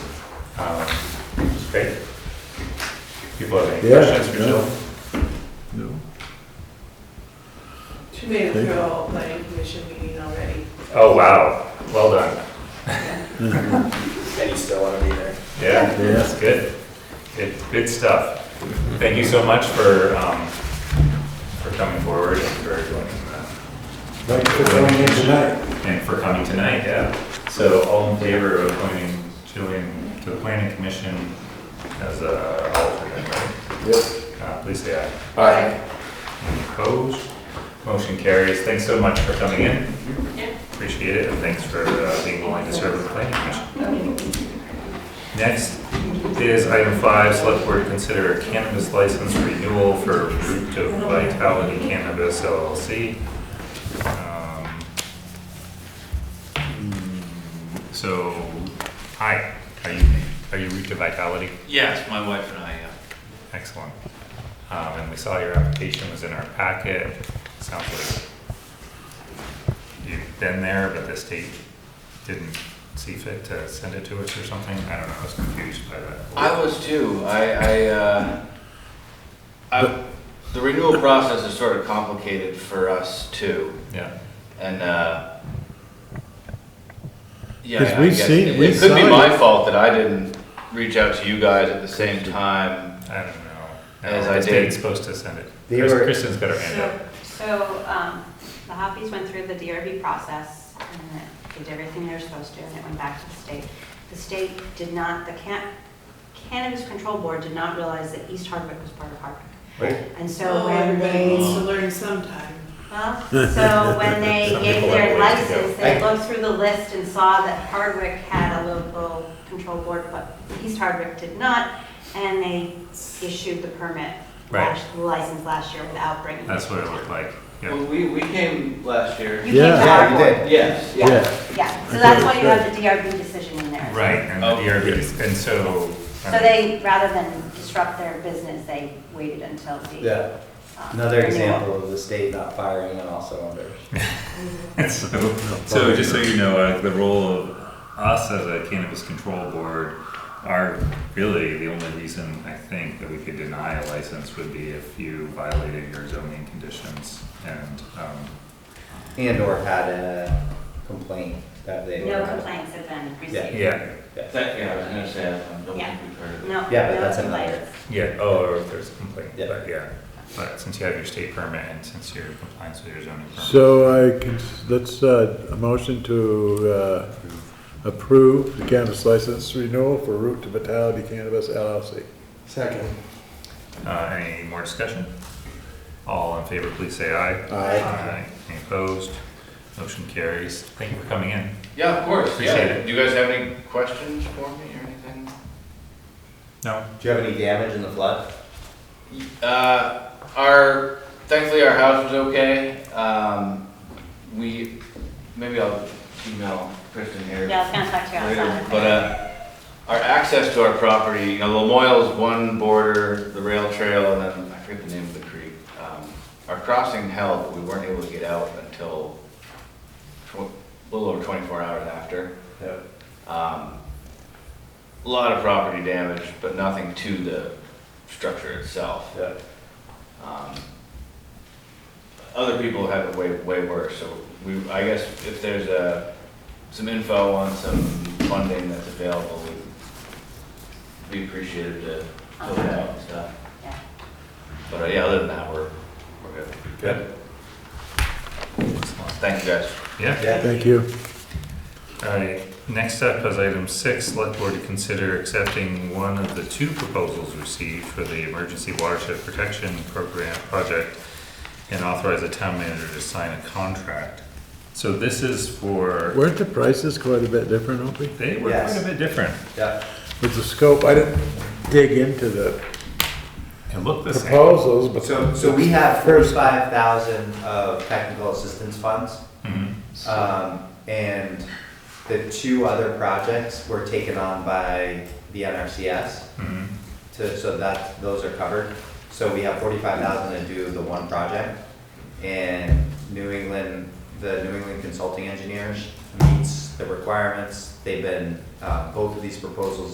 Okay. Um, People have any Yeah, questions for no. Jill? No. She made it through a whole planning commission meeting already. Oh, wow, well done. And you still want to be there. Yeah, Yeah. that's good. Good, good stuff. Thank you so much for, um, for coming forward and for joining the Thanks for coming in tonight. and for coming tonight, yeah. So all in favor of appointing Jillian to the planning commission as a alternate, right? Yep. Uh, please say aye. Aye. Any opposed? Motion carries. Thanks so much for coming in. Appreciate it, and thanks for uh, being willing to serve the planning commission. Next is item five, select board to consider a cannabis license renewal for Root of Vitality Cannabis LLC. Um, mm, So, hi, are you, are you Root of Vitality? Yes, my wife and I, yeah. Excellent. Um, and we saw your application was in our packet. Sounds like you've been there, but the state didn't see fit to send it to us or something. I don't know, I was confused by that. I was too. I, I, uh, I, the renewal process is sort of complicated for us too. Yeah, And, uh, yeah, 'Cause I we've guess seen- it, we've it could be signed my fault that I didn't reach out to you guys at the same time. I don't know. As No, I The state's did. supposed to send it. They Chris- were- Kristen's got her hand So, up. so, um, the Hoppies went through the DRB process and did everything they were supposed to, and it went back to the state. The state did not, the Can- Cannabis Control Board did not realize that East Hardwick was part of Hardwick. Right. And so So when everybody needs they, to learn sometime. well, so when they Some gave people their have ways to go. license, they looked through the list and saw that Hardwick had a local control board, but East Hardwick did not, and they issued the permit, Right. last- license last year without bringing it That's what to it town. looked like. Yeah, Well, we, we came last year. You can't Yeah. have Yeah, you one. did. Yes. Yeah, Yeah, so Okay, that's why you good. have the DRB decision in there. right, and the Oh. DRB, and so. So they, rather than disrupt their business, they waited until the. Yeah. um, Another renewal. example of the state not firing on all cylinders. So, so just so you know, uh, the role of us as a cannabis control board are really the only reason I think that we could deny a license would be if you violated your zoning conditions and, um, And or had a complaint that they. No complaints have been received. yeah, Yeah. That, yeah, I was gonna say, I don't think we've heard of it. No, Yeah, but no that's another- complaints. yeah, oh, or if there's a complaint, Yeah. but yeah. But since you have your state permit and since you're in compliance with your zoning permit, So I can, let's, uh, a motion to, uh, approve the cannabis license renewal for Root to Vitality Cannabis LLC. Second. uh, any more discussion? All in favor, please say aye. Aye. Any opposed? Motion carries. Thank you for coming in. Yeah, of course, Appreciate yeah. it. Do you guys have any questions for me or anything? No? Do you have any damage in the flood? Uh, our thankfully our house was okay. Um, we maybe I'll email Kristen here. Yeah, I was gonna talk to you Later, outside. but uh, our access to our property, you know, Lamoille's one border, the rail trail, and then I forget the name of the creek. Um, our crossing held, but we weren't able to get out until tw- a little over 24 hours after. No. Um, a lot of property damage, but nothing to the structure itself. Yeah. Um, Other people have it way, way worse, so we, I guess if there's a, some info on some funding that's available, we'd be appreciative to fill it out and stuff. Yeah. But uh, yeah, other than that, we're, we're good. Good. Thank you guys. Yeah? Yeah. Thank you. Alright, next up is item six, select board to consider accepting one of the two proposals received for the Emergency Watershed Protection Program project and authorize the town manager to sign a contract. So this is for, Weren't the prices quite a bit different, Opie? they were quite Yes. a bit different. Yeah. With the scope, I didn't dig into the It looked the same. proposals, but. So, so we have forty-five thousand of technical assistance funds. Mhm. Um, and the two other projects were taken on by the NRCS Mhm. to, so that, those are covered. So we have forty-five thousand to do the one project. And New England, the New England Consulting Engineers meets the requirements. They've been, uh, both of these proposals